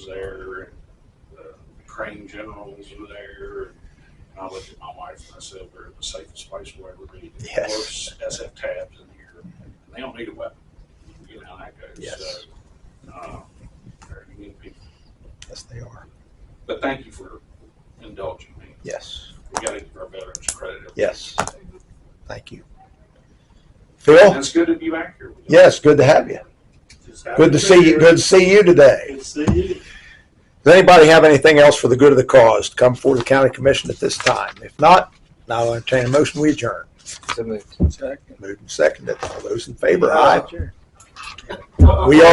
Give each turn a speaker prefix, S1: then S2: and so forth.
S1: was there, and the Crane Generals were there. And I looked at my wife and I said, "We're in the safest place we'll ever be.
S2: Yes.
S1: Of course, SF tabs in here, and they don't need a weapon. You know how that goes.
S2: Yes.
S1: So, uh, they're unique people.
S2: Yes, they are.
S1: But thank you for indulging me.
S2: Yes.
S1: We got to give our veterans credit.
S2: Yes. Thank you. Phil?
S1: That's good to be back here. With you.
S2: Yes, good to have you.
S1: Just happy
S2: Good
S1: be
S2: to see you.
S1: here.
S2: Good to see you today.
S1: Good to see you.
S2: Does anybody have anything else for the good of the cause to come before the county commission at this time? If not, now I'll entertain a motion, we adjourn.
S3: So moved.
S2: Moved and seconded. All those in favor, aye.
S3: Sure.
S2: We are.